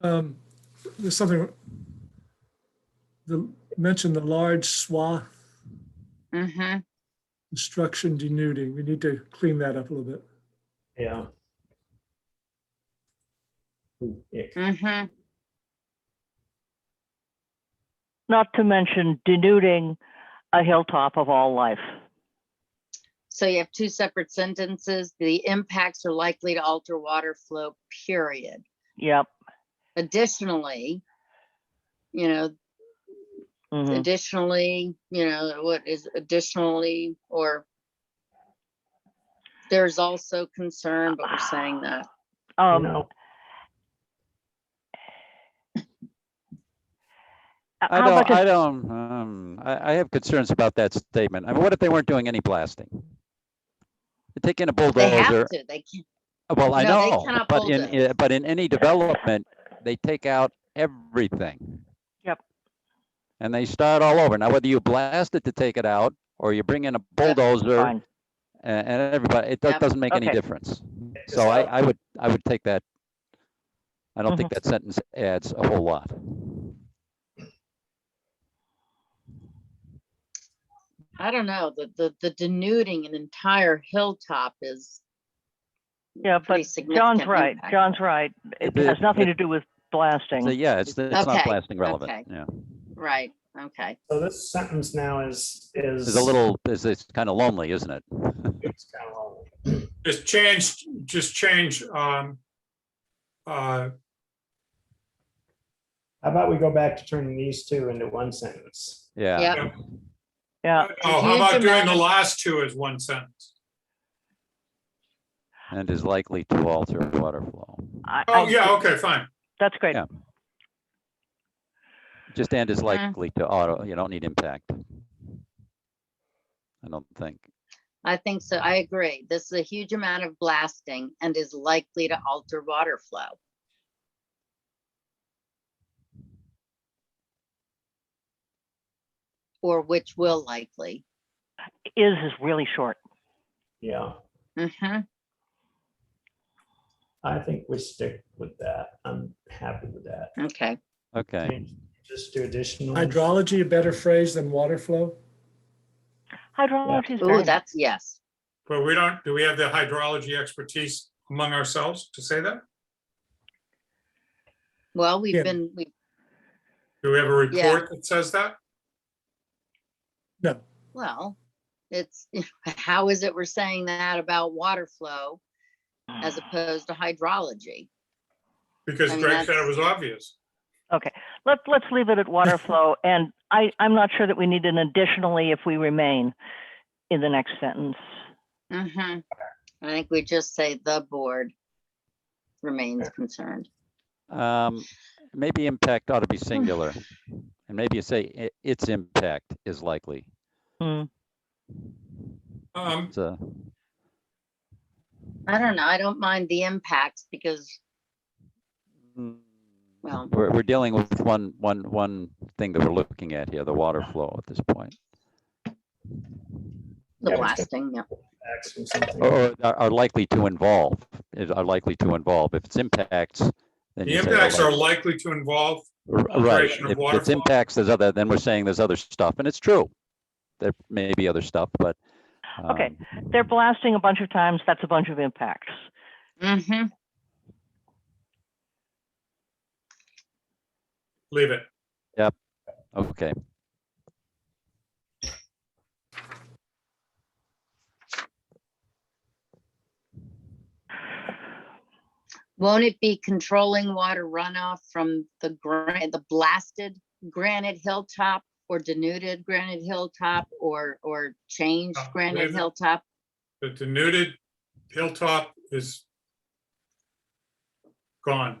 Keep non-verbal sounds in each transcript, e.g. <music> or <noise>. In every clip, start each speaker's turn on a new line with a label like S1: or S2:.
S1: Um, There's something, the, mention the large swath
S2: Mm-hmm.
S1: destruction denuding. We need to clean that up a little bit.
S3: Yeah. Ooh, ick.
S2: Mm-hmm.
S4: not to mention denuding a hilltop of all life.
S2: So you have two separate sentences. The impacts are likely to alter water flow, period.
S4: Yep.
S2: Additionally, you know,
S4: mhm.
S2: additionally, you know, what is additionally or there's also concern, but we're saying that.
S4: Um,
S3: No.
S4: h-
S5: I
S4: how much
S5: don't,
S4: is-
S5: I don't, um, I, I have concerns about that statement. I mean, what if they weren't doing any blasting? They're Taking a
S2: They have
S5: bulldozer,
S2: to, they can't,
S5: well, I
S2: No, they
S5: know,
S2: cannot
S5: but in,
S2: bulldoze.
S5: uh, but in any development, they take out everything.
S4: Yep.
S5: And they start all over. Now, whether you blast it to take it out, or you bring in a bulldozer
S4: Fine.
S5: and, and everybody, it do-
S2: Yep.
S5: doesn't make any
S4: Okay.
S5: difference. So I, I would, I would take that. I don't think
S4: Mm-hmm.
S5: that sentence adds a whole lot.
S2: I don't know, the, the, the denuding an entire hilltop is
S4: Yeah,
S2: pretty
S4: but John's
S2: significant
S4: right.
S2: impact.
S4: John's right. It
S5: The-
S4: has nothing to
S5: the-
S4: do with
S5: So
S4: blasting.
S5: yeah, it's, it's
S2: Okay,
S5: not blasting
S2: okay.
S5: relevant, yeah.
S2: right, okay.
S3: So this sentence now is, is.
S5: It's a little, it's, it's kind of lonely, isn't it?
S3: it's kind of long.
S6: Just change, just change, um, uh,
S3: How about we go back to turning these two into one sentence?
S5: Yeah,
S2: Yep.
S4: Yeah.
S6: oh, how about
S2: Huge
S6: doing
S2: amount
S6: the
S2: of-
S6: last two as one sentence?
S5: and is likely to alter water flow.
S4: I-
S6: Oh,
S4: I-
S6: yeah, okay, fine.
S4: That's great.
S5: Yeah. Just and
S2: Mm.
S5: is likely to auto, you don't need impact. I don't think.
S2: I think so. I agree. This is a huge amount of blasting and is likely to alter water flow. Or which will likely.
S4: Is is really short.
S3: Yeah,
S2: Mhm.
S3: I think we stick with that. I'm happy with that.
S2: Okay,
S5: Okay,
S3: Just do additional.
S1: Hydrology, a better phrase than water flow?
S4: Hydrology is
S2: ooh,
S4: very-
S2: that's yes.
S6: But we don't, do we have the hydrology expertise among ourselves to say that?
S2: Well, we've
S1: Yeah.
S2: been, we,
S6: Do we have a
S2: Yeah.
S6: report that says that?
S1: No.
S2: well, it's, <laughs> how is it we're saying that about water flow as opposed to hydrology?
S6: Because
S2: I mean,
S6: Greg said it
S2: that's-
S6: was obvious.
S4: Let, let's leave it at water
S2: <laughs>
S4: flow. And I, I'm not sure that we need an additionally if we remain in the next sentence.
S2: Mm-hmm. I think we just say the board remains concerned.
S5: um, maybe impact ought to
S2: <sighs>
S5: be singular. And maybe you say i- its impact is likely.
S4: Hmm.
S6: Um,
S5: It's a-
S2: I don't know. I don't mind the impacts because, well,
S5: We're, we're dealing with one, one, one thing that we're looking at here, the water flow at this point.
S2: the
S3: Yeah, it's-
S2: blasting, yeah.
S3: X or something.
S5: Or are- are likely to involve, is- are likely to involve. If it's impacts, then
S6: the
S5: you say are
S6: impacts are
S5: likely-
S6: likely to involve,
S5: r- Right,
S6: alteration of
S5: if
S6: water
S5: it's
S6: flow.
S5: impacts, there's other, then we're saying there's other stuff, and it's true. There may be other stuff, but.
S4: Okay.
S5: um,
S4: They're blasting a bunch of times. That's a bunch of impacts.
S2: Mm-hmm.
S6: leave it.
S5: um, Okay,
S2: Won't it be controlling water runoff from the gran, the blasted granite hilltop or denuded granite hilltop or, or changed
S6: Uh,
S2: granite
S6: there's a-
S2: hilltop?
S6: The denuded hilltop is gone.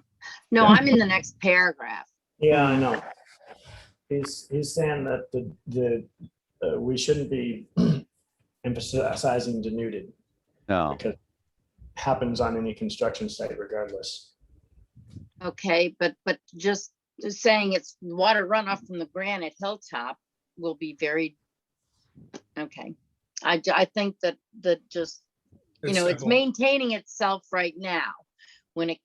S2: No, I'm in the next paragraph.
S3: Yeah, I know. He's, he's saying that the, the, uh, we shouldn't be <clears throat> emphasizing denuded
S5: no,
S3: because it happens on any construction site regardless.
S2: Okay, but, but just saying it's water runoff from the granite hilltop will be very, okay. I, ju- I think that, that just you know, it's
S6: simple.
S2: maintaining itself right now. When it